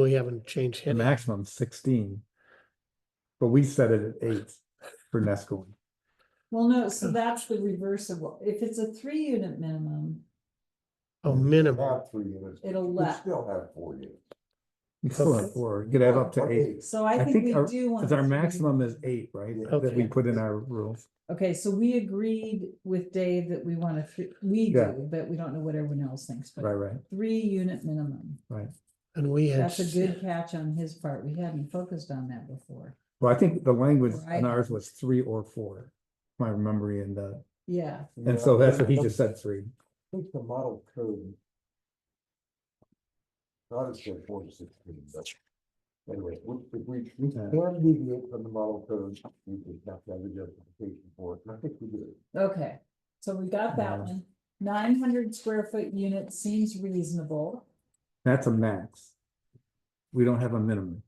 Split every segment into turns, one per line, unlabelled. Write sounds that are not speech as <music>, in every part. We haven't changed
The
hit.
maximum sixteen. But we set it at eight for Nesco.
Well, no, so that's the reverse of what, if it's a three unit minimum,
Oh, minimum.
Have three units.
it'll
We
let,
still have four units.
We still have four, you could have up to eight,
so
I
I
think
think we
our-
do want.
because our
three.
maximum is eight, right? That we
Okay.
put in our rules.
Okay, so we agreed with Dave that we want a three, we
Yeah.
do, but we don't know what everyone else thinks,
Right,
but
right,
three unit minimum.
And we had,
That's a good catch on his part, we hadn't focused on that before,
well, I think the language
Right.
in ours was three or four. My memory and uh,
yeah.
and so that's what he just said, three.
I think the model code. Not as good four to sixteen, but. Anyway, we, if we, we
Yeah.
can deviate from the model code, we would have to have a justification for it, and I think we did.
Okay, so we got that
Yeah.
one. Nine hundred square foot unit seems reasonable.
That's a max. We don't have a minimum.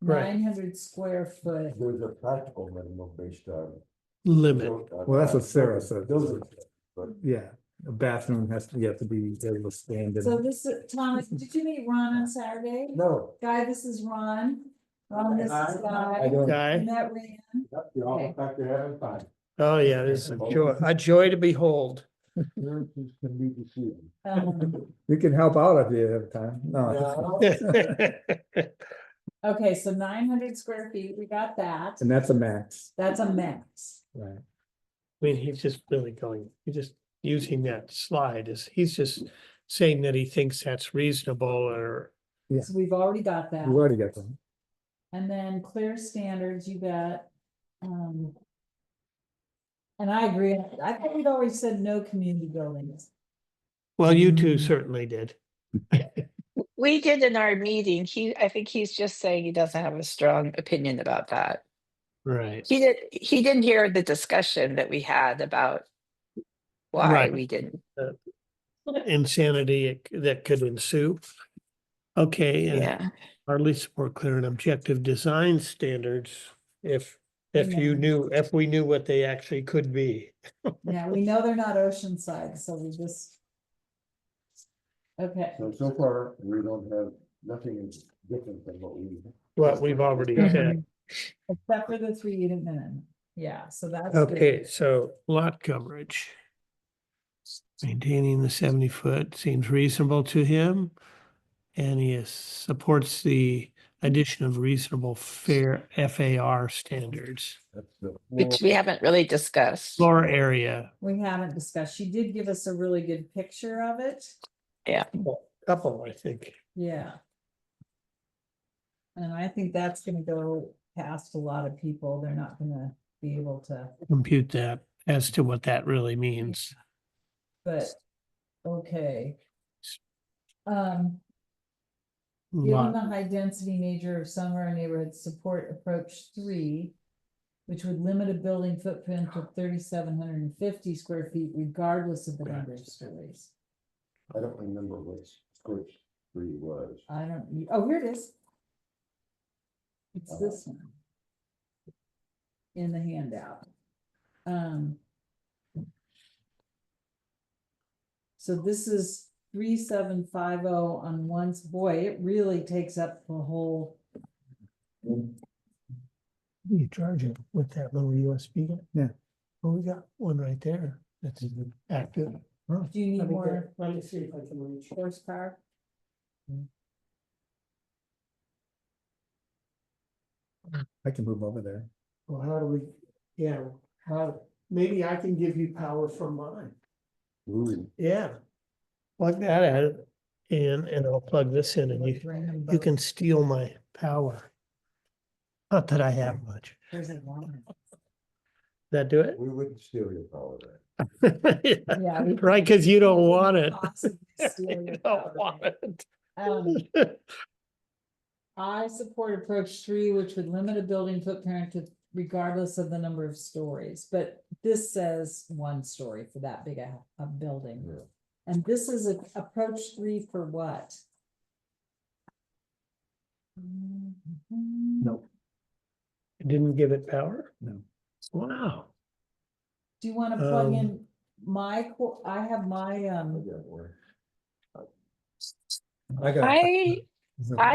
Right.
Nine hundred square foot,
There's a practical minimum based on.
limit.
Well, that's what Sarah said.
Those are,
Yeah, a bathroom has to, you have to be able to stand
so
in.
this is, Thomas, did you meet Ron on Saturday?
no.
Guy, this is Ron. Ron, Um, this is
I
Guy.
don't,
You
Guy.
met Ran.
that's the all factor having fun.
Oh, yeah, this is a joy, a joy to behold. <laughs>
Appearances can be deceiving.
Um,
We can help out if you have time. No,
No,
<laughs>
Okay, so nine hundred square feet, we got that.
and that's a max,
That's a max.
right?
I mean, he's just really going, he's just using that slide as, he's just saying that he thinks that's reasonable or
Yeah.
So we've already got that.
You already got them.
And then clear standards, you got, um. And I agree, I thought we'd always said no community buildings.
Well, you two
Mm.
certainly did.
We did in our meeting, he, I think he's just saying he doesn't have a strong opinion about that.
Right.
He did, he didn't hear the discussion that we had about why
Right.
we didn't.
Insanity it- that could ensue. Okay, and
Yeah,
hardly support clear and objective design standards if, if you
Yeah.
knew, if we knew what they actually could be.
Yeah, we know they're not oceanside, so we just. Okay,
So, so far, we don't have, nothing is different than what we.
What we've already said.
except for the three unit minimum, yeah, so that's. good.
Okay, so lot coverage. Maintaining the seventy foot seems reasonable to him. And he is- supports the addition of reasonable fair FAR standards.
That's the
which we haven't really discussed.
Floor area,
We haven't discussed, she did give us a really good picture of it,
couple, I think.
yeah. And I think that's gonna go past a lot of people, they're not gonna be able to.
compute that as to what that really means.
But, okay. Um, given
Lot-
the high density nature of some of our neighborhoods, support approach three. Which would limit a building footprint to thirty-seven hundred and fifty square feet regardless of the number of stories.
I don't remember what square three was.
I don't, oh, here it is.
Oh.
It's this one. In the handout. Um. So this is three, seven, five, oh on once, boy, it really takes up the whole,
What are You charge it with that little USB?
Yeah.
Well, we got one right there that's active.
do you need
Let me
more
get- let me see if I can reach.
horsepower?
I can move over there.
Well, how do we, yeah, how, maybe I can give you power from mine.
Ooh.
Yeah. Plug that out in and I'll plug this in and
Like,
you,
bring them
you
both.
can steal my power. Not that I have much.
There's a line.
That do it?
We wouldn't steal your power then.
<laughs> Yeah, we-
Right, because you don't
couldn't
want it.
possibly
<laughs>
steal your
You
power.
don't want it.
Um, I support approach three, which would limit a building footprint to regardless of the number of stories, but this says one story for that big a, a building.
Yeah.
And this is a approach three for what? Do
No,
It <laughs> Didn't give it power?
no.
Wow.
you wanna plug
Um,
in my, co- I have my,
I
um.
got one.
I got.
I,
it.
I